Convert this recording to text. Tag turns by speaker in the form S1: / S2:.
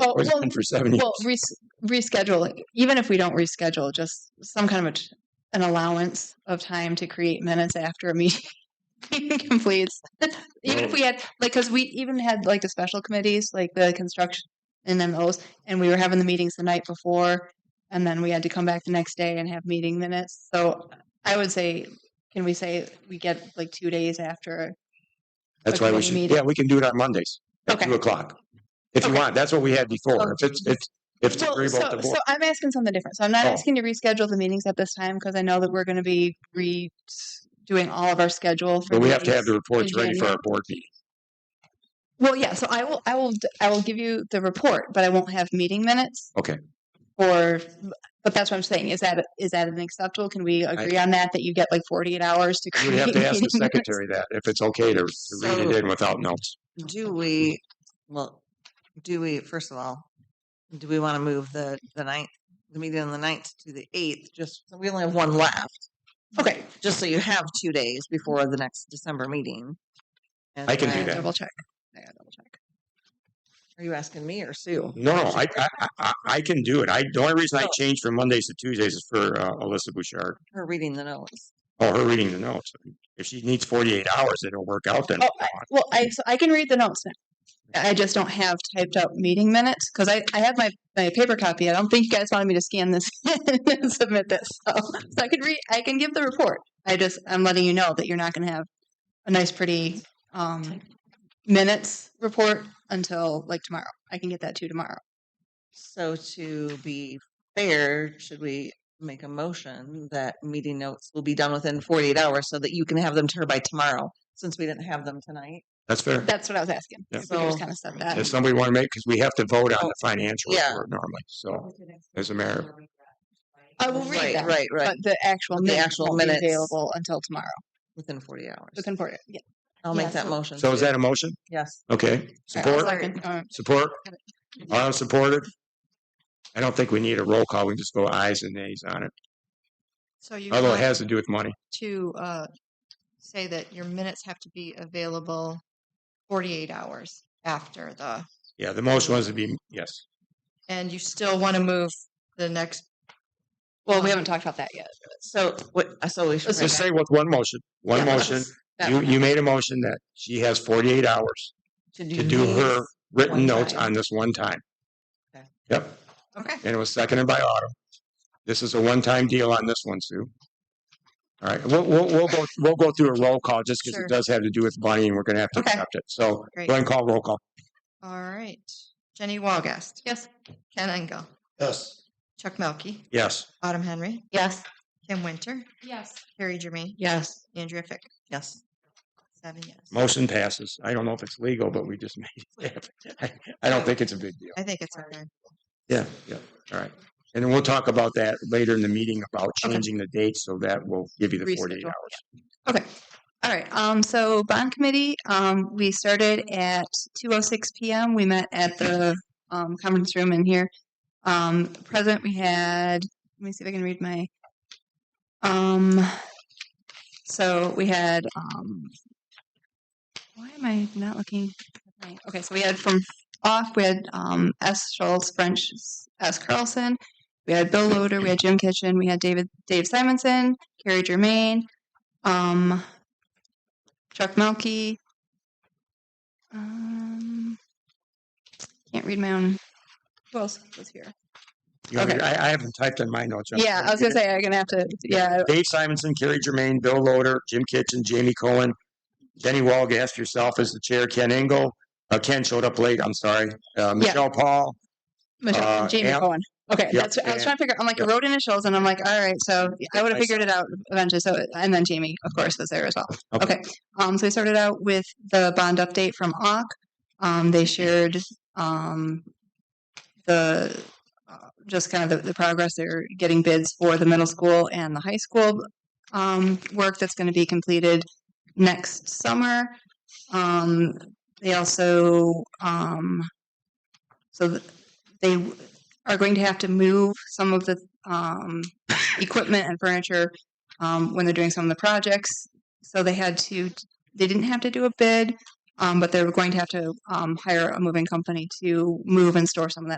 S1: Oh,
S2: It's
S1: well,
S2: been for seven years.
S1: Well, res- rescheduling, even if we don't reschedule, just some kind of a t- an allowance of time to create minutes after a meeting completes. even if
S2: Well-
S1: we had, like, because we even had like the special committees, like the construction and MOs, and we were having the meetings the night before, and then we had to come back the next day and have meeting minutes. So I would say, can we say we get like two days after?
S2: That's why we
S1: committee
S2: should,
S1: meeting.
S2: yeah, we can do it on Mondays at
S1: Okay.
S2: two o'clock. If you
S1: Okay.
S2: want, that's what we had before. If it's, if, if it's
S1: Well,
S2: agreeable
S1: so,
S2: to the
S1: so
S2: board.
S1: I'm asking something different. So I'm not
S2: Oh.
S1: asking to reschedule the meetings at this time because I know that we're going to be re doing all of our schedule. For
S2: But we have to
S1: these.
S2: have the reports
S1: in
S2: ready for our
S1: January.
S2: board meeting.
S1: Well, yeah. So I will, I will, d- I will give you the report, but I won't have meeting minutes.
S2: Okay.
S1: Or, but that's what I'm saying. Is that is that an acceptable? Can we agree on that? That you get like 48 hours to
S2: You
S1: create.
S2: would have to ask the
S1: meeting minutes?
S2: secretary that, if it's okay to to read it
S3: So-
S2: in without notes.
S3: Do we, well, do we, first of all, do we want to move the, the ninth, the meeting on the ninth to the eighth? Just, so we only have one left,
S1: Okay,
S3: just so you have two days before the next December meeting. And
S2: I can do
S1: I
S3: then-
S2: that.
S1: double check. I gotta double check.
S3: Are you asking me or Sue?
S1: Mm-hmm.
S2: No, no, I, I, I- I, I can do it. I, the only reason I
S3: Oh.
S2: changed from Mondays to Tuesdays is for uh, Alyssa Bouchard.
S3: Her reading the notes.
S2: Oh, her reading the notes. If she needs forty-eight hours, it'll work out then.
S1: Oh, Well, I so I can read the notes now. I just don't have typed up meeting minutes because I, I have my, my paper copy. I don't think you guys wanted me to scan this and submit this. So, so I could read. I can give the report. I just I'm letting you know that you're not going to have a nice, pretty um, minutes report until like tomorrow. I can get that to you tomorrow.
S3: So to be fair, should we make a motion that meeting notes will be done within forty-eight hours so that you can have them to her by tomorrow, since we didn't have them tonight?
S2: That's fair.
S1: That's what I was asking.
S2: Yeah.
S1: So we
S3: So-
S1: just kind of said that.
S2: If somebody want to make, because we have to vote on
S3: Oh,
S2: the financial
S3: yeah.
S2: report normally, so as a mayor.
S1: I will read
S3: Right,
S1: that,
S3: Right, right,
S1: But the actual
S3: The
S1: minutes
S3: actual
S1: won't be
S3: minutes.
S1: available until tomorrow.
S3: within forty hours.
S1: Looking forward. Yeah.
S3: I'll
S1: yeah,
S3: make that
S1: so-
S3: motion.
S2: So is
S3: too.
S2: that a motion?
S3: Yes.
S2: Okay,
S1: All right,
S2: support,
S1: I'll second. Um,
S2: support, all supported? I don't think we need a roll call. We can just go ayes and nays on it,
S4: So you
S2: although it
S4: want
S2: has to do with money.
S4: to uh, say that your minutes have to be available 48 hours after the,
S2: Yeah, the motion was to be, yes.
S4: and you still want to move the next,
S1: Well, we haven't talked about that yet.
S3: So what, so we should.
S2: Let's
S3: write
S2: just
S3: that-
S2: say with one motion, one
S3: Yeah,
S2: motion.
S3: let's- that
S2: You, you made a motion that she has forty-eight hours to do her
S3: these.
S2: written
S3: one
S2: notes
S3: time.
S2: on this one time.
S3: Okay.
S2: Yep,
S4: okay.
S2: and it was seconded by Autumn. This is a one-time deal on this one, Sue. All right, we'll, we'll, we'll go, we'll go through a roll call just because
S4: Sure.
S2: it does have to do with money and we're gonna have to
S1: Okay.
S2: accept it. So go
S4: Great.
S2: ahead and call roll call.
S4: All right. Jenny Walgast. Yes. Ken Engel.
S2: Yes.
S4: Chuck Melkey.
S2: Yes,
S4: Autumn Henry.
S1: Yes.
S4: Kim Winter.
S1: Yes.
S4: Harry Jermaine.
S1: Yes.
S4: Andrea Fick.
S3: Yes.
S4: Seven yes.
S2: motion passes. I don't know if it's legal, but we just made it. happen. I- I don't think it's a big deal.
S4: I think it's okay.
S2: Yeah, yeah, all right. And then we'll talk about that later in the meeting about
S1: Okay.
S2: changing the date, so that will give you the forty-eight
S1: Reschedule,
S2: hours.
S1: Okay. All right. Um, so bond committee, um, we started at two oh six PM. We met at the, um, conference room in here. Um, present, we had, let me see if I can read my, um, so we had, um, why am I not looking? at my- Okay. So we had from off, we had, um, S Schultz, French S Carlson. We had Bill Loader, we had Jim Kitchen, we had David, Dave Simonson, Carrie Germain, um, Chuck Melkey. Um, can't read my own. Who else was here?
S2: You want me-
S1: Okay.
S2: I, I haven't typed in my notes. yet.
S1: Yeah, I was gonna say I'm gonna have to. Yeah,
S2: Dave Simonson, Kerry Germain, Bill Loader, Jim Kitchen, Jamie Cohen, Jenny Walgast, yourself as the chair, Ken Engel. Uh, Ken showed up late, I'm sorry. Uh, Michelle Paul,
S1: Michelle,
S2: Uh,
S1: Jamie
S2: Am-
S1: Cohen. Okay,
S2: yeah,
S1: that's. I was
S2: and-
S1: trying to figure. I'm like I
S2: yeah.
S1: wrote initials, and I'm like, all right. So I would have
S2: I
S1: figured it out eventually. So and then Jamie, of course, was there as well.
S2: Okay.
S1: Okay. Um, so we started out with the bond update from AUK. Um, they shared um, the uh, just kind of the, the progress they're getting bids for the middle school and the high school um, work that's going to be completed next summer. Um, they also um, so th- they w- are going to have to move some of the um, equipment and furniture um, when they're doing some of the projects. So they had to, they didn't have to do a bid, Um, but they were going to have to um, hire a moving company to move and store some of that